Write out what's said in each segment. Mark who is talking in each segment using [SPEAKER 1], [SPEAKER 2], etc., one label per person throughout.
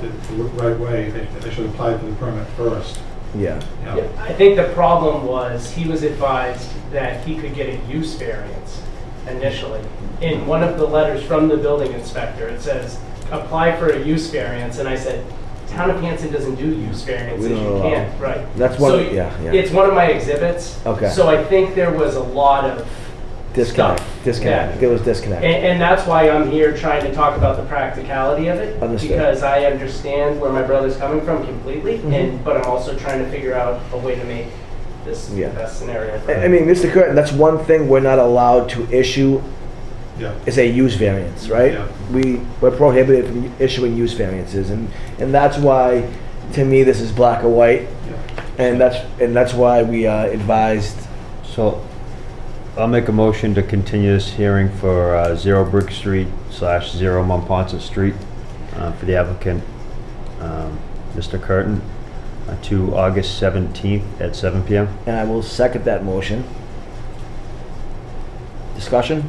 [SPEAKER 1] the right way, they, they should apply for the permit first.
[SPEAKER 2] Yeah,
[SPEAKER 1] you know.
[SPEAKER 3] Yeah, I think the problem was, he was advised that he could get a use variance initially. In one of the letters from the building inspector, it says, apply for a use variance, and I said, town of Hanson doesn't do use variances,
[SPEAKER 2] We
[SPEAKER 3] you
[SPEAKER 2] don't allow-
[SPEAKER 3] can't, right?
[SPEAKER 2] That's one-
[SPEAKER 3] So
[SPEAKER 2] yeah, yeah.
[SPEAKER 3] It's one of my exhibits.
[SPEAKER 2] Okay.
[SPEAKER 3] So I think there was a lot of
[SPEAKER 2] disconnect,
[SPEAKER 3] Stuff.
[SPEAKER 2] disconnect,
[SPEAKER 3] Yeah.
[SPEAKER 2] there was disconnect.
[SPEAKER 3] And, and that's why I'm here trying to talk about the practicality of it.
[SPEAKER 2] Understood.
[SPEAKER 3] Because I understand where my brother's coming from completely,
[SPEAKER 2] Mhm.
[SPEAKER 3] and, but I'm also trying to figure out a way to make this the
[SPEAKER 2] Yeah.
[SPEAKER 3] best scenario for
[SPEAKER 2] I I
[SPEAKER 3] him.
[SPEAKER 2] mean, Mr. Curtin, that's one thing we're not allowed to issue
[SPEAKER 1] Yeah,
[SPEAKER 2] is a use variance, right?
[SPEAKER 1] Yeah.
[SPEAKER 2] We, we're prohibited from issuing use variances, and, and that's why, to me, this is black or white,
[SPEAKER 1] yeah.
[SPEAKER 2] and that's, and that's why we uh, advised,
[SPEAKER 4] So I'll make a motion to continue this hearing for uh, Zero Brick Street slash Zero Monpont Street uh, for the applicant, um, Mr. Curtin, uh, to August 17th at 7 PM.
[SPEAKER 2] and I will second that motion. Discussion?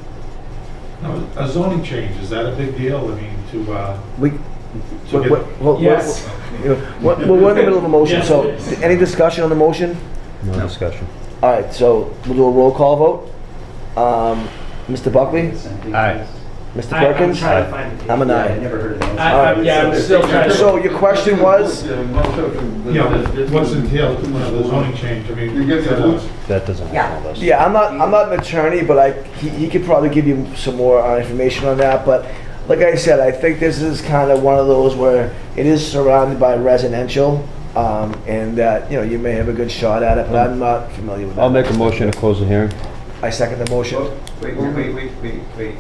[SPEAKER 1] Now, a zoning change, is that a big deal? I mean, to, uh,
[SPEAKER 2] We,
[SPEAKER 1] to
[SPEAKER 2] what,
[SPEAKER 1] get,
[SPEAKER 2] what, what-
[SPEAKER 3] Yes.
[SPEAKER 2] what- what- we're in the middle of a motion,
[SPEAKER 3] Yes,
[SPEAKER 2] so,
[SPEAKER 3] it is.
[SPEAKER 2] any discussion on the motion?
[SPEAKER 4] No discussion.
[SPEAKER 2] All right, so we'll do a roll call vote. Um, Mr. Buckley,
[SPEAKER 4] Aye.
[SPEAKER 2] Mr.
[SPEAKER 3] I- I'm
[SPEAKER 2] Perkins,
[SPEAKER 3] trying to find it.
[SPEAKER 2] I'm an
[SPEAKER 5] Yeah,
[SPEAKER 2] aye.
[SPEAKER 5] I never heard of that.
[SPEAKER 3] I- I'm- Yeah, I'm still trying to,
[SPEAKER 2] So your question was,
[SPEAKER 1] yeah, what's entailed with the zoning change? I mean.
[SPEAKER 6] You get the
[SPEAKER 1] uh,
[SPEAKER 6] boots?
[SPEAKER 4] That doesn't help us.
[SPEAKER 2] yeah, I'm not, I'm not an attorney, but I, he, he could probably give you some more uh, information on that. But like I said, I think this is kind of one of those where it is surrounded by residential, um, and that, you know, you may have a good shot at it, but I'm not familiar with that.
[SPEAKER 4] I'll make a motion to close the hearing.
[SPEAKER 2] I second the motion.
[SPEAKER 5] Wait, wait, wait, wait, wait, wait.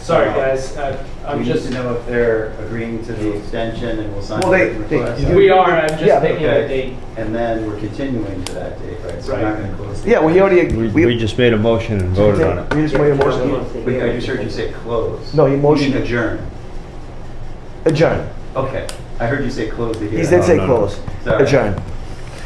[SPEAKER 3] sorry, guys, I- I'm
[SPEAKER 5] We need
[SPEAKER 3] just,
[SPEAKER 5] to know if they're agreeing to the extension and will sign
[SPEAKER 2] Well, they-
[SPEAKER 5] the
[SPEAKER 2] they-
[SPEAKER 5] request.
[SPEAKER 2] you-
[SPEAKER 3] we are, I'm
[SPEAKER 2] Yeah.
[SPEAKER 3] just picking a
[SPEAKER 5] Okay,
[SPEAKER 3] date.
[SPEAKER 5] and then we're continuing to that date, right? So we're not
[SPEAKER 3] Right.
[SPEAKER 5] gonna close. the-
[SPEAKER 2] Yeah, well, he already,
[SPEAKER 4] We-
[SPEAKER 2] we,
[SPEAKER 4] We just made a motion and voted on it.
[SPEAKER 2] we just made a motion,
[SPEAKER 5] Wait, I just heard you say close.
[SPEAKER 2] No, he
[SPEAKER 5] You mean
[SPEAKER 2] motioned.
[SPEAKER 5] Adjourn.
[SPEAKER 2] adjourn.
[SPEAKER 5] Okay, I heard you say close the
[SPEAKER 2] He
[SPEAKER 5] hearing.
[SPEAKER 2] did say
[SPEAKER 4] Oh, no, no.
[SPEAKER 2] close,
[SPEAKER 5] Sorry.
[SPEAKER 2] adjourn.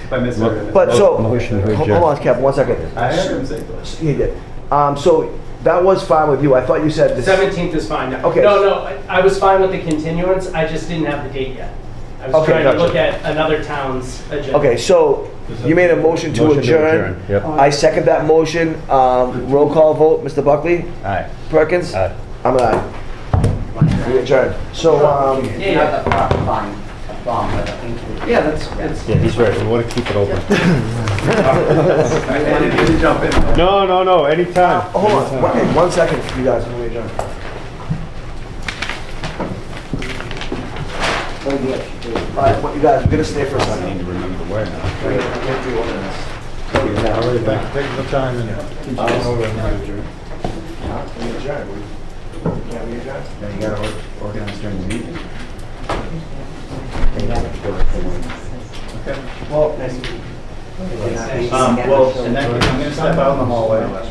[SPEAKER 5] If I misheard. it.
[SPEAKER 2] But so,
[SPEAKER 4] Motion to
[SPEAKER 2] hold
[SPEAKER 4] adjourn.
[SPEAKER 2] on, Kev, one second.
[SPEAKER 5] I heard him say close.
[SPEAKER 2] He did. Um, so that was fine with you. I thought you said this.
[SPEAKER 3] 17th is fine now.
[SPEAKER 2] Okay.
[SPEAKER 3] No, no, I- I was fine with the continuance, I just didn't have the date yet. I was
[SPEAKER 2] Okay,
[SPEAKER 3] trying to
[SPEAKER 2] gotcha.
[SPEAKER 3] look at another town's agenda.
[SPEAKER 2] Okay, so you made a motion to
[SPEAKER 4] Motion
[SPEAKER 2] adjourn.
[SPEAKER 4] Yep.
[SPEAKER 2] I second that motion. Um, roll call vote, Mr. Buckley,
[SPEAKER 4] Aye.
[SPEAKER 2] Perkins?
[SPEAKER 4] Aye.
[SPEAKER 2] I'm an aye. We adjourn. So, um,
[SPEAKER 3] Yeah, yeah. Yeah, that's, that's.
[SPEAKER 4] Yeah, he's right. We want to keep it open.
[SPEAKER 5] I I didn't mean to jump in.
[SPEAKER 4] No, no, no, anytime.
[SPEAKER 2] hold on, one- one second, you guys, before we adjourn. All right, what- you guys, we're gonna stay for a second.
[SPEAKER 1] All right, thank you for the time and.
[SPEAKER 5] You gotta or- organize during the meeting. Um, well, in that case, I'm gonna step out in the hallway. I'm gonna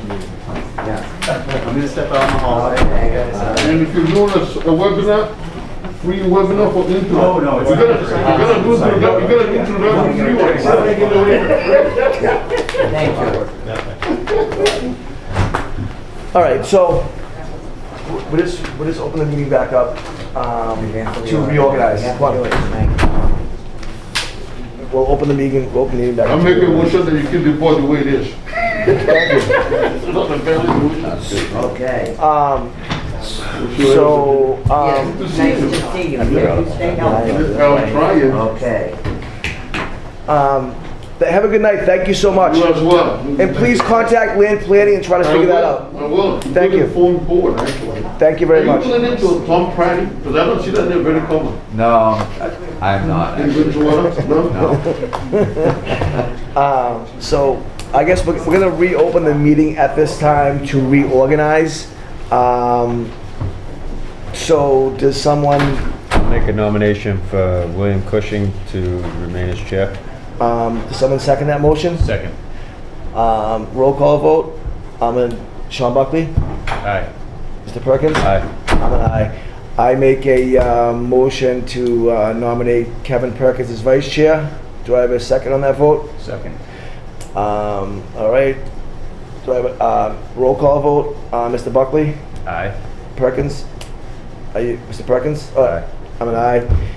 [SPEAKER 5] step out in the hallway. Uh,
[SPEAKER 6] And if you're doing a s- a webinar, free webinar for internet.
[SPEAKER 5] No,
[SPEAKER 1] Oh,
[SPEAKER 5] no, it's
[SPEAKER 6] You're gonna,
[SPEAKER 5] not.
[SPEAKER 6] you're gonna do, introdu- you're gonna introduction free one. Why would I give it away?
[SPEAKER 2] All right, so we will just, we will just open the meeting back up um, to reorganize. We'll open the meeting, we'll open the meeting back up.
[SPEAKER 6] I'm making a motion that you keep the board the way it is.
[SPEAKER 7] Okay.
[SPEAKER 2] Um, so,
[SPEAKER 7] Nice
[SPEAKER 2] um,
[SPEAKER 7] to see you. Can you stay healthy?
[SPEAKER 6] I'm trying.
[SPEAKER 7] Okay.
[SPEAKER 2] um, th- have a good night, thank you so much.
[SPEAKER 6] You as well.
[SPEAKER 2] And please contact land planning and try to
[SPEAKER 6] I
[SPEAKER 2] figure that
[SPEAKER 6] will,
[SPEAKER 2] out.
[SPEAKER 6] I will.
[SPEAKER 2] Thank you.
[SPEAKER 6] Including Phone board, actually.
[SPEAKER 2] Thank you very
[SPEAKER 6] Are
[SPEAKER 2] much.
[SPEAKER 6] you pulling into a Tom Pratty? Because I don't see that name very common.
[SPEAKER 8] No, I'm not.
[SPEAKER 6] In Bridgewater, no?
[SPEAKER 2] Um, so I guess we're, we're gonna reopen the meeting at this time to reorganize. Um, so does someone
[SPEAKER 4] Make a nomination for William Cushing to remain as chair.
[SPEAKER 2] Um, does someone second that motion?
[SPEAKER 4] Second.
[SPEAKER 2] Um, roll call vote. I'm an Sean Buckley,
[SPEAKER 4] Aye.
[SPEAKER 2] Mr. Perkins.
[SPEAKER 4] Aye.
[SPEAKER 2] I'm an aye. I make a uh, motion to uh, nominate Kevin Perkins as vice chair. Do I have a second on that vote?
[SPEAKER 4] Second.
[SPEAKER 2] Um, all right. Do I have a uh, roll call vote? Uh, Mr. Buckley,
[SPEAKER 4] Aye.
[SPEAKER 2] Perkins. Are you, Mr. Perkins? Uh,
[SPEAKER 4] Aye.
[SPEAKER 2] I'm an aye.